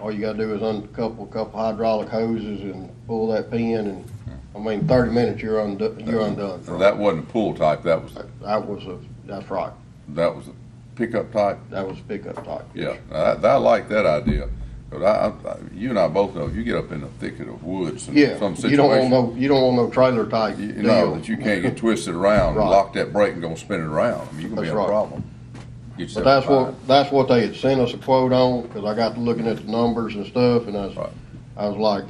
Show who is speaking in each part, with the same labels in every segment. Speaker 1: all you gotta do is uncouple a couple hydraulic hoses and pull that pin and, I mean, thirty minutes, you're undo, you're undone.
Speaker 2: And that wasn't a pool type, that was,
Speaker 1: That was a, that's right,
Speaker 2: that was a pickup type?
Speaker 1: that was pickup type.
Speaker 2: Yeah, I, I like that idea, but I, I, you and I both know, if you get up in the thicket of woods in
Speaker 1: Yeah,
Speaker 2: some
Speaker 1: you don't want
Speaker 2: situation,
Speaker 1: no, you don't want no trailer type
Speaker 2: you
Speaker 1: deal.
Speaker 2: know, that you can't get twisted around and
Speaker 1: Right.
Speaker 2: lock that brake and go spin it around, I mean, you're gonna be
Speaker 1: That's
Speaker 2: in a
Speaker 1: right.
Speaker 2: problem. Get
Speaker 1: But
Speaker 2: yourself
Speaker 1: that's
Speaker 2: fined.
Speaker 1: what, that's what they had sent us a quote on, cause I got to looking at the numbers and stuff, and I
Speaker 2: Right.
Speaker 1: was, I was like,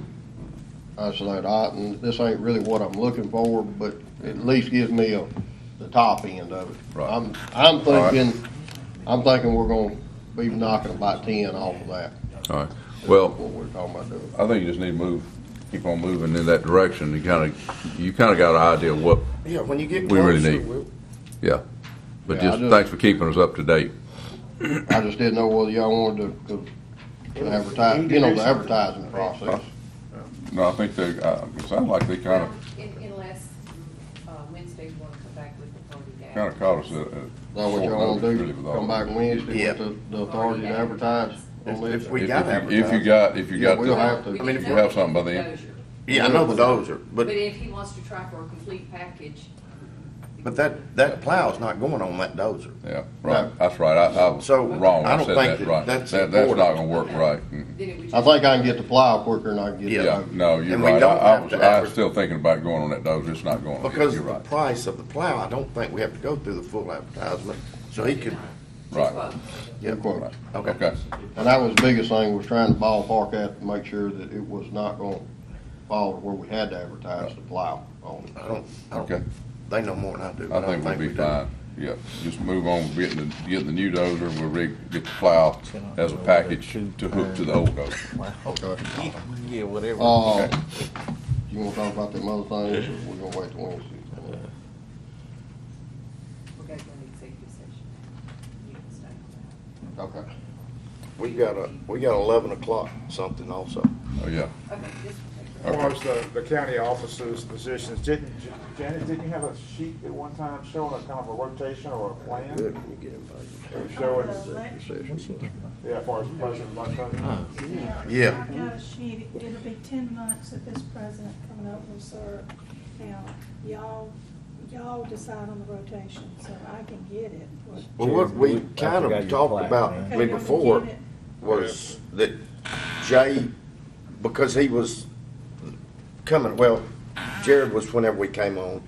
Speaker 1: I said, I, and this ain't really what I'm looking for, but at least gives me a, the top end of it.
Speaker 2: Right.
Speaker 1: I'm, I'm
Speaker 2: right.
Speaker 1: thinking, I'm thinking we're gonna be knocking about ten off of that,
Speaker 2: All right, well,
Speaker 1: what we're talking about doing.
Speaker 2: I think you just need to move, keep on moving in that direction, you kinda, you kinda got an idea of what,
Speaker 3: Yeah, when you get
Speaker 2: We really
Speaker 3: closer,
Speaker 2: need-
Speaker 3: we'll-
Speaker 2: yeah. But
Speaker 1: Yeah, I
Speaker 2: just,
Speaker 1: just-
Speaker 2: thanks for keeping us up to date.
Speaker 1: I just didn't know whether y'all wanted to, to advertise, you know, the advertising process.
Speaker 2: No, I think they, uh, it sounded like they kinda,
Speaker 4: Un- Unless uh, Wednesday want to come back with the forty day.
Speaker 2: kinda caught us at,
Speaker 1: Is
Speaker 2: at.
Speaker 1: that what y'all
Speaker 2: short
Speaker 1: wanna
Speaker 2: notice, really,
Speaker 1: do,
Speaker 2: with all
Speaker 1: come
Speaker 2: that.
Speaker 1: back Wednesday
Speaker 3: Yeah.
Speaker 1: with the, the authority to advertise on
Speaker 3: If- if
Speaker 1: this?
Speaker 3: we
Speaker 2: If-
Speaker 3: gotta
Speaker 2: if you- If you
Speaker 3: advertise.
Speaker 2: got, if you
Speaker 1: Yeah,
Speaker 2: got.
Speaker 1: we
Speaker 2: the-
Speaker 1: don't have to.
Speaker 4: We
Speaker 1: I
Speaker 2: mean,
Speaker 4: can
Speaker 2: if you have
Speaker 4: know
Speaker 2: something by the end.
Speaker 4: closure.
Speaker 3: yeah, I know the dozer,
Speaker 4: But
Speaker 3: but,
Speaker 4: if he wants to try for a complete package.
Speaker 3: but that, that plow's not going on that dozer.
Speaker 2: Yeah, right, that's right, I, I was
Speaker 3: So,
Speaker 2: wrong,
Speaker 3: I
Speaker 2: I
Speaker 3: don't
Speaker 2: said that,
Speaker 3: think that
Speaker 2: right, that,
Speaker 3: that's
Speaker 2: that's not
Speaker 3: important.
Speaker 2: gonna work
Speaker 4: Okay.
Speaker 2: right. Mm.
Speaker 4: Then it would
Speaker 1: I
Speaker 4: just-
Speaker 1: think I can get the plow quicker than I can get the
Speaker 2: Yeah,
Speaker 3: Yeah.
Speaker 1: load.
Speaker 2: no, you're
Speaker 3: And we
Speaker 2: right, I,
Speaker 3: don't
Speaker 2: I
Speaker 3: have
Speaker 2: was,
Speaker 3: to
Speaker 2: I was
Speaker 3: adver-
Speaker 2: still thinking about going on that dozer, it's not going on, yet.
Speaker 3: Because
Speaker 2: you're
Speaker 3: of the
Speaker 2: right,
Speaker 3: price of the plow, I don't think we have to go through the full advertisement, so he could,
Speaker 2: right,
Speaker 4: Well,
Speaker 3: yeah,
Speaker 1: Good quote.
Speaker 3: okay.
Speaker 2: okay,
Speaker 1: And that was the biggest thing, was trying to ballpark that, to make sure that it was not gonna fall to where we had to advertise the plow on it.
Speaker 3: I don't, I
Speaker 2: okay.
Speaker 3: don't, they know more than I do,
Speaker 2: I
Speaker 3: but I don't
Speaker 2: think we'll
Speaker 3: think we
Speaker 2: be
Speaker 3: do.
Speaker 2: fine, yeah, just move on, with getting the, getting the new dozer, we'll rig, get the plow as a package to hook to the old dozer.
Speaker 1: Okay.
Speaker 5: Yeah, whatever.
Speaker 1: Uh, you wanna talk about them other things, or we're gonna wait till Wednesday?
Speaker 4: we're going to go into executive session. You can stay on
Speaker 1: Okay.
Speaker 3: We got a, we got eleven o'clock something also.
Speaker 2: Oh, yeah,
Speaker 4: that. Okay, this will take care
Speaker 2: Okay.
Speaker 6: As far as the, the county officers' positions, didn't, Janet, didn't you have a sheet at one time showing a kind of a rotation or a plan?
Speaker 3: Good, you get invited.
Speaker 6: Showing,
Speaker 3: Decision.
Speaker 6: yeah, as far as president, vice president.
Speaker 3: Yeah.
Speaker 7: I got a sheet, it'll be ten months that this president coming up will serve. Now, y'all, y'all decide on the rotation, so I can get it.
Speaker 3: Well, what we kind
Speaker 5: forgot
Speaker 3: of
Speaker 5: your
Speaker 3: talked
Speaker 5: plaque,
Speaker 3: about
Speaker 5: man.
Speaker 7: Okay,
Speaker 3: way
Speaker 7: y'all can
Speaker 3: before
Speaker 7: get it.
Speaker 3: was that Jay, because he was coming, well, Jared was whenever we came on,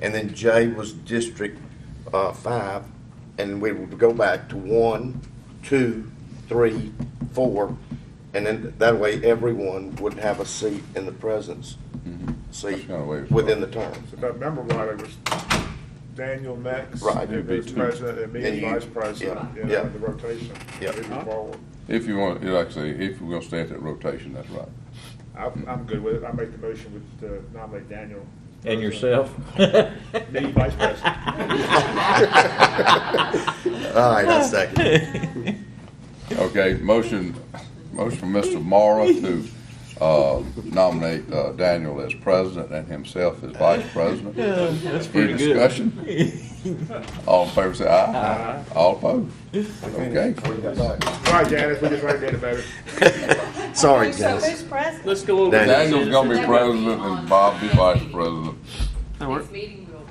Speaker 3: and then Jay was District, uh, five, and we would go back to one, two, three, four, and then that way everyone would have a seat in the presence, seat
Speaker 2: Mm-hmm. kinda way it was
Speaker 3: within the terms.
Speaker 6: If I remember right, it was Daniel next.
Speaker 3: Right.
Speaker 6: Who was president, and me
Speaker 3: And
Speaker 6: as
Speaker 3: you-
Speaker 6: vice president,
Speaker 3: yeah,
Speaker 6: you know,
Speaker 3: yeah.
Speaker 6: in the rotation.
Speaker 3: Yeah.
Speaker 6: Moving forward.
Speaker 2: if you want, like I say, if we're gonna stay at that rotation, that's right.
Speaker 6: I, I'm good with it. I make the motion with, uh, nominate Daniel.
Speaker 5: And yourself?
Speaker 6: Me, vice president.
Speaker 3: All right, I second.
Speaker 2: Okay, motion, motion from Mr. Mara to uh, nominate uh, Daniel as president and himself as vice president. That's
Speaker 5: pretty good.
Speaker 2: discussion? All in favor, say aye. All opposed? Okay.
Speaker 6: Uh-huh. Right, Janet, we just right there about it.
Speaker 3: Sorry,
Speaker 4: So
Speaker 3: guys.
Speaker 7: Who's president?
Speaker 5: Let's go over
Speaker 3: Daniel.
Speaker 5: that.
Speaker 2: Daniel's gonna be president and Bob be vice president.
Speaker 4: of
Speaker 8: work.
Speaker 4: it. Next meeting, we'll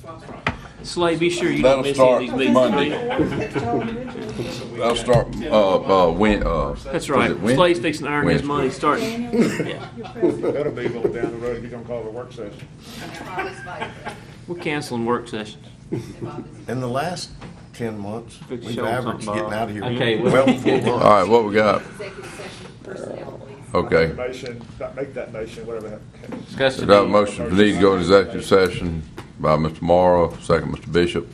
Speaker 4: swap it.
Speaker 8: Slade, be sure you
Speaker 2: That'll
Speaker 8: don't miss
Speaker 2: start
Speaker 8: any of these meetings.
Speaker 2: Monday.
Speaker 8: Slade.
Speaker 2: I'll start, uh, uh, Wed- uh.
Speaker 8: That's
Speaker 2: was
Speaker 8: right.
Speaker 2: it Wed-
Speaker 8: Slade's fixing to earn his
Speaker 2: Wednesday.
Speaker 8: money starting.
Speaker 7: Daniel, your president.
Speaker 6: That'll be a little down the road. You're gonna call it a work session.
Speaker 4: Bob is vice president.
Speaker 8: We're canceling work sessions.
Speaker 4: Bob is-
Speaker 3: In the last ten months,
Speaker 8: Good
Speaker 3: we've
Speaker 8: show,
Speaker 3: averaged
Speaker 8: something,
Speaker 3: getting out
Speaker 8: Bob.
Speaker 3: of here
Speaker 8: Okay,
Speaker 3: well
Speaker 8: well-
Speaker 3: before lunch.
Speaker 2: All right, what we got?
Speaker 4: Executive session personnel, please.
Speaker 2: Okay.
Speaker 6: Motion, that- make that motion, whatever that.
Speaker 8: Discuss the
Speaker 2: Adopt
Speaker 8: need-
Speaker 2: motion for need to go into executive session by Mr. Morrow, second Mr. Bishop.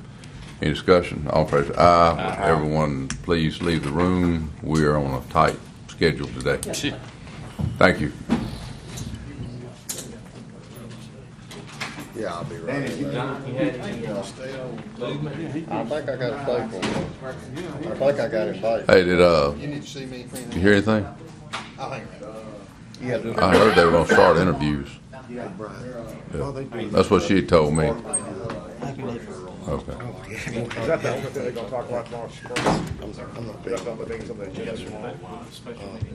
Speaker 2: Any discussion? All in favor, say aye. Everyone, please leave the room. We are on a tight schedule today. Thank you.
Speaker 3: Yeah, I'll be right.
Speaker 1: I think I got a safe one. I think I got it safe.
Speaker 2: Hey, did, uh,
Speaker 9: You need to see me, friend.
Speaker 2: you hear anything?
Speaker 9: I'll hang around.
Speaker 2: I heard they were gonna start interviews.
Speaker 3: Well, they do.
Speaker 2: That's what she told me. Okay.
Speaker 6: Is that the only thing they're gonna talk about tomorrow? That's
Speaker 3: I'm not big.
Speaker 6: the only thing that's on the agenda tomorrow.